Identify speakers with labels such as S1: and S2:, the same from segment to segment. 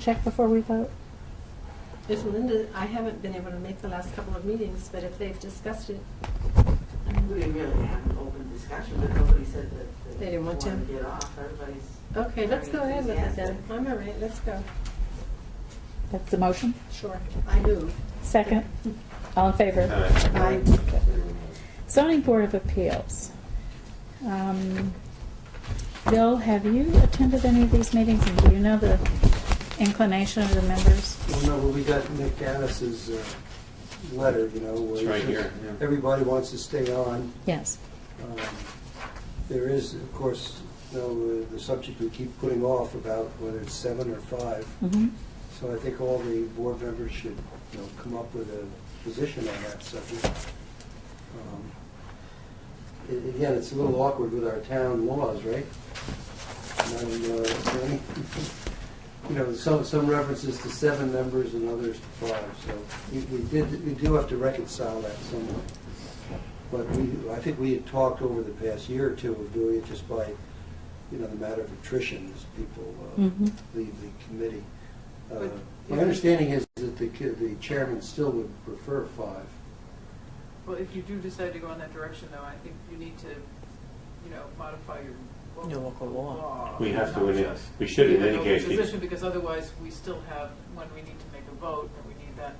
S1: check before we vote?
S2: If Linda, I haven't been able to make the last couple of meetings, but if they've discussed it, um, I mean,
S3: We didn't really have an open discussion, but nobody said that. that
S2: They didn't want to.
S3: wanted get off, everybody's.
S2: okay, let's go ahead with it then.
S3: enthusiastic.
S2: I'm all right, let's go.
S1: That's the motion?
S2: Sure, I move.
S1: Second? All in favor?
S2: Aye.
S1: Zoning Board of Appeals. Um, Bill, have you attended any of these meetings, and do you know the inclination of the members?
S4: Well, no, but we got Nick Gaddis's, uh letter, you know, where
S5: It's right
S4: he says
S5: here, yeah.
S4: everybody wants to stay on.
S1: Yes.
S4: Um, There is, of course, though, uh, the subject we keep putting off about whether it's seven or five.
S1: Mhm.
S4: So I think all the board members should, you know, come up with a position on that subject. Um, a- Again, it's a little awkward with our town laws, right? Madam, uh, Attorney? You know, some, some references to seven members and others to five, so we we did, we do have to reconcile that somewhat. But we, I think we had talked over the past year or two of doing it just by, you know, the matter of attrition as people uh,
S1: Mhm.
S4: leave the committee. Uh,
S3: But-
S4: My understanding is that the ca- the chairman still would prefer five.
S6: Well, if you do decide to go in that direction, though, I think you need to, you know, modify your
S7: Your local law.
S5: We have to,
S6: not
S5: in it-
S6: just
S5: we should in
S6: be
S5: any
S6: open
S5: case, be-
S6: Position, because otherwise, we still have, when we need to make a vote, and we need that,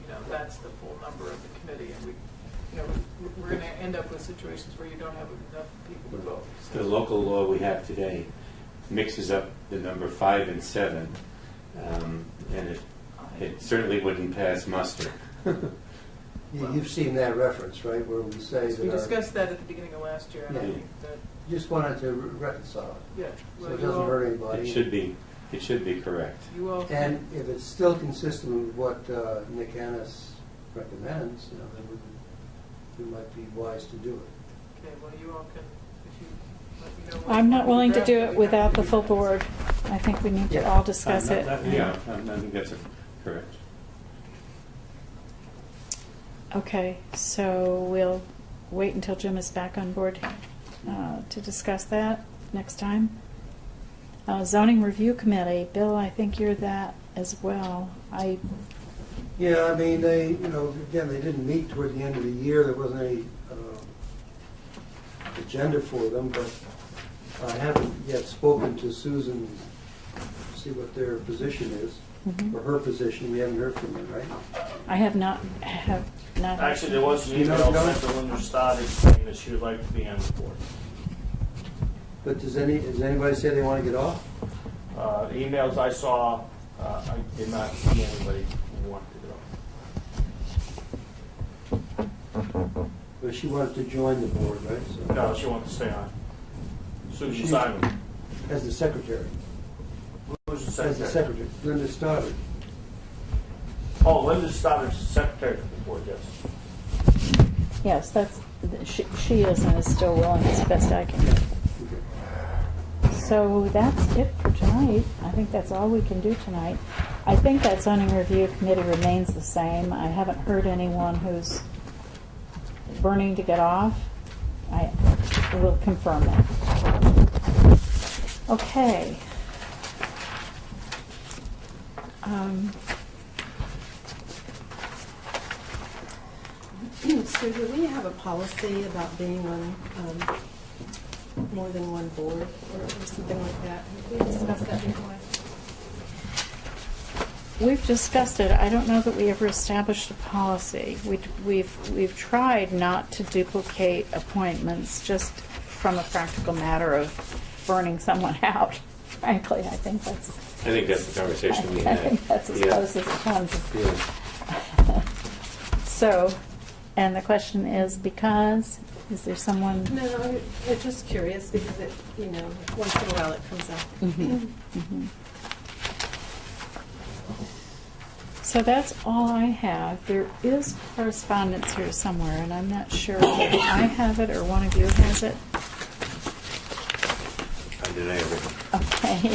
S6: you know, that's the full number of the committee, and we, you know, we- we're gonna end up with situations where you don't have enough people to vote.
S5: The
S6: So
S5: local law we have today mixes up the number five and seven, um, and it, it certainly wouldn't pass muster.
S4: You- You've seen that reference, right, where we say
S6: We
S4: that our,
S6: discussed that at the beginning of last year, and I
S4: Yeah.
S6: think that,
S4: just wanted to re- reconcile it,
S6: yeah.
S4: so it
S6: well, you
S4: doesn't
S6: all-
S4: hurt anybody.
S5: It should be, it should be correct.
S6: You all.
S4: And if it's still consistent with what uh, Nick Annis recommends, you know, then we- we might be wise to do it.
S6: Okay, well, you all can, if you, let me know. what-
S1: I'm not
S6: what
S1: willing to
S6: draft
S1: do
S6: that
S1: it
S6: we have
S1: without
S6: to
S1: the
S6: do
S1: full
S6: next.
S1: board. I think we need to all discuss
S5: Uh,
S1: it.
S5: not- not- Yeah, I I think that's a- correct.
S1: Okay, so we'll wait until Jim is back on board uh, to discuss that next time. Uh, Zoning Review Committee, Bill, I think you're that as well. I,
S4: Yeah, I mean, they, you know, again, they didn't meet toward the end of the year, there wasn't any um, agenda for them, but I haven't yet spoken to Susan, to see what their position is,
S1: mhm.
S4: or her position, we haven't heard from her, right?
S1: I have not, have not.
S8: Actually, there was an
S4: You know,
S8: email
S4: no.
S8: sent to Linda Stoddard saying that she would like to be on the board.
S4: But does any, does anybody say they want to get off?
S8: Uh, the emails I saw, uh, I did not see anybody who wanted to go.
S4: But she wanted to join the board, right? So-
S8: No, she wanted to stay on. Susan
S4: She's-
S8: Simon,
S4: As the secretary,
S8: who's the
S4: as the secretary,
S8: secretary?
S4: Linda Stoddard.
S8: Oh, Linda Stoddard's the secretary of the board, yes.
S1: Yes, that's, she she is and is still willing as best I can.
S4: Okay.
S1: So that's it for tonight. I think that's all we can do tonight. I think that zoning review committee remains the same. I haven't heard anyone who's burning to get off. I will confirm that. Okay. Um,
S2: So do we have a policy about being on um, more than one board or or something like that? Have we discussed that before?
S1: We've discussed it. I don't know that we ever established a policy. We- We've, we've tried not to duplicate appointments, just from a practical matter of burning someone out, frankly. I think that's,
S5: I think that's the
S1: I
S5: conversation we
S1: I
S5: had.
S1: think that's as
S5: Yeah.
S1: close as it comes.
S5: Yeah.
S1: So, and the question is because, is there someone?
S2: No, I'm- I'm just curious because it, you know, once in a while it comes up.
S1: Mhm, mhm. So that's all I have. There is correspondence here somewhere, and I'm not sure if I have it or one of you has it.
S5: I deny everything.
S1: Okay.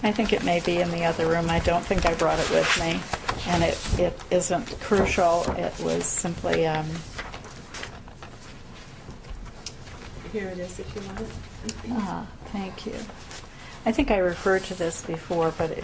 S1: I think it may be in the other room. I don't think I brought it with me, and it, it isn't crucial. It was simply, um,
S2: Here it is if you want it.
S1: Uh, ah, thank you. I think I referred to this before, but